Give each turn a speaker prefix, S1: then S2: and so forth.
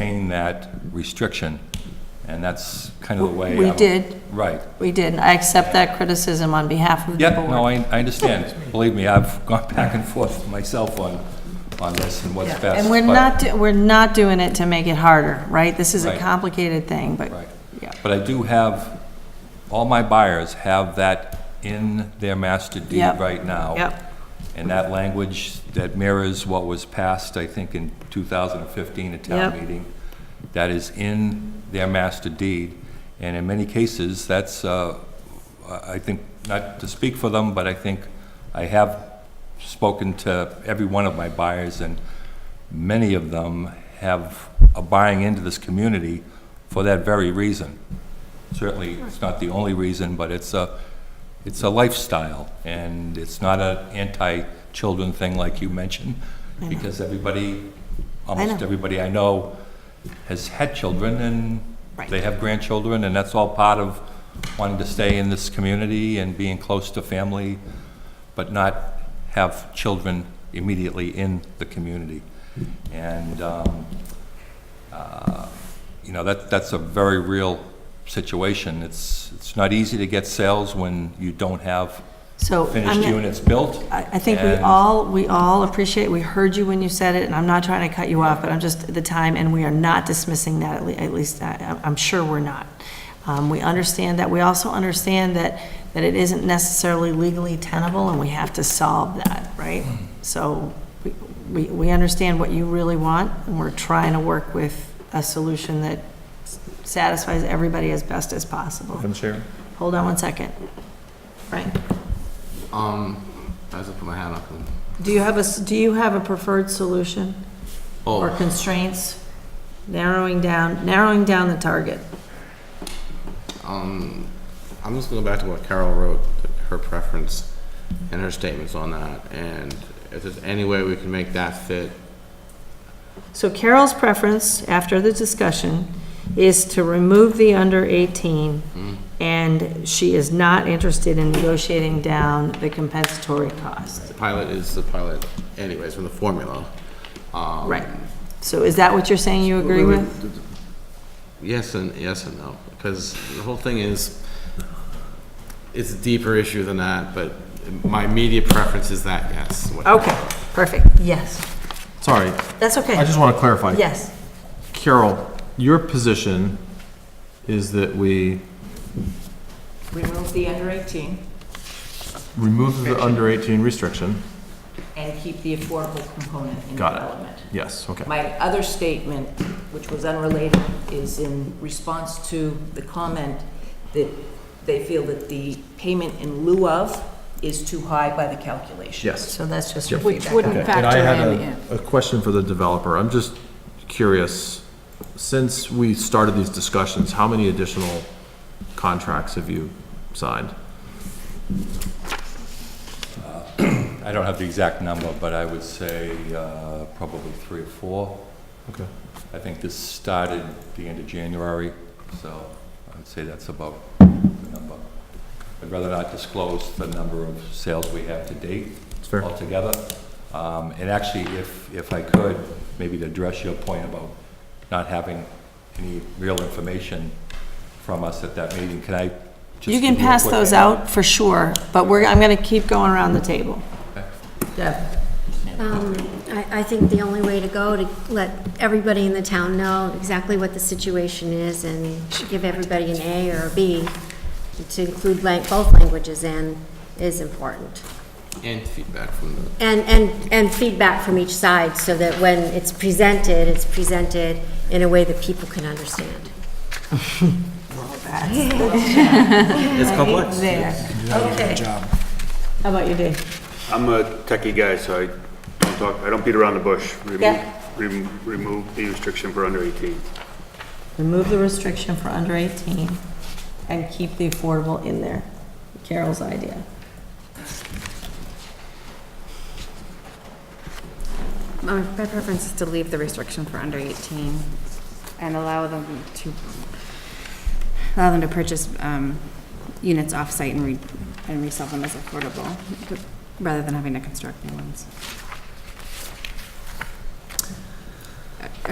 S1: in that restriction, and that's kind of the way.
S2: We
S1: I'm-
S2: did.
S1: Right.
S2: We did, and I accept that criticism on behalf of the
S1: Yeah, no,
S2: board.
S1: I, I understand. Believe me, I've gone back and forth myself on, on this and what's best.
S2: And we're
S1: but-
S2: not, do- we're not doing it to make it harder, right? This is a
S1: Right.
S2: complicated thing, but,
S1: Right.
S2: yeah.
S1: But I do have, all my buyers have that in their master deed
S2: Yep.
S1: right now.
S2: Yep,
S1: And that language that mirrors what was passed, I think, in 2015 at town
S2: Yep.
S1: meeting, that is in their master deed. And in many cases, that's, uh, I I think, not to speak for them, but I think I have spoken to every one of my buyers, and many of them have, are buying into this community for that very reason. Certainly, it's not the only reason, but it's a, it's a lifestyle, and it's not an anti-children thing like you mentioned, because everybody, almost
S2: know.
S1: everybody I know has had children, and
S2: Right.
S1: they have grandchildren, and that's all part of wanting to stay in this community and being close to family, but not have children immediately in the community. And, um, uh, you know, that, that's a very real situation. It's, it's not easy to get sales when you don't have
S2: so. I'm
S1: finished
S2: gonna-
S1: units built.
S2: I, I think we
S1: And-
S2: all, we all appreciate, we heard you when you said it, and I'm not trying to cut you off, but I'm just, the time, and we are not dismissing that, at le- at least, I- I'm I'm sure we're not. Um, we understand that, we also understand that, that it isn't necessarily legally tenable, and we have to solve that, right?
S3: Hmm.
S2: So, we, we, we understand what you really want, and we're trying to work with a solution that satisfies everybody as best as possible.
S3: Madam Chair?
S2: Hold on one second. Frank?
S4: Um, I have to put my hand up. And,
S2: Do you have a, s- do you have a preferred solution or
S4: oh,
S2: constraints? Narrowing down, narrowing down the target.
S4: um, I'm just gonna go back to what Carol wrote, her preference and her statements on that. And if there's any way we can make that fit,
S2: So Carol's preference, after the discussion, is to remove the under 18,
S1: Hmm.
S2: and she is not interested in negotiating down the compensatory cost.
S4: the pilot is the pilot anyways from the formula. Um,
S2: Right. So is that what you're saying you agree with?
S4: Yes and, yes and no, because the whole thing is, it's a deeper issue than that, but my immediate preference is that, yes. what-
S2: Okay, perfect, yes.
S3: Sorry,
S2: That's
S3: I
S2: okay.
S3: just want to clarify.
S2: Yes,
S3: Carol, your position is that we
S5: remove the under 18
S3: remove the under 18 restriction?
S5: and keep the affordable component in
S3: Got it.
S5: development.
S3: Yes, okay.
S5: My other statement, which was unrelated, is in response to the comment that they feel that the payment in lieu of is too high by the calculation.
S3: Yes.
S2: so that's just your
S6: Which
S2: feedback.
S6: wouldn't
S3: Okay. And I
S6: factor
S3: had
S6: in.
S3: a, a question for the developer. I'm just curious, since we started these discussions, how many additional contracts have you signed?
S1: I don't have the exact number, but I would say uh, probably three or four.
S3: Okay.
S1: I think this started the end of January, so I would say that's about the number. I'd rather not disclose the number of sales we have to date
S3: It's fair.
S1: altogether. Um, And actually, if, if I could, maybe to address your point about not having any real information from us at that meeting, can I just?
S2: You can
S1: give a
S2: pass
S1: quick-
S2: those out for sure, but we're, I'm going to keep going around the table. Deb?
S7: Um, I, I think the only way to go to let everybody in the town know exactly what the situation is and give everybody an A or a B, to include lang- both languages in, is important.
S4: And feedback from the
S7: And, and, and feedback from each side so that when it's presented, it's presented in a way that people can understand.
S4: It's complex.
S2: There, okay. How about you, Dave?
S8: I'm a techie guy, so I don't talk, I don't beat around the bush. Remove-
S2: Yeah.
S8: rem- Remove the restriction for under 18.
S2: Remove the restriction for under 18 and keep the affordable in there. Carol's idea.
S6: My my preference is to leave the restriction for under 18 and allow them to, allow them to purchase um, units off-site and re- and resell them as affordable, rather than having to construct new ones.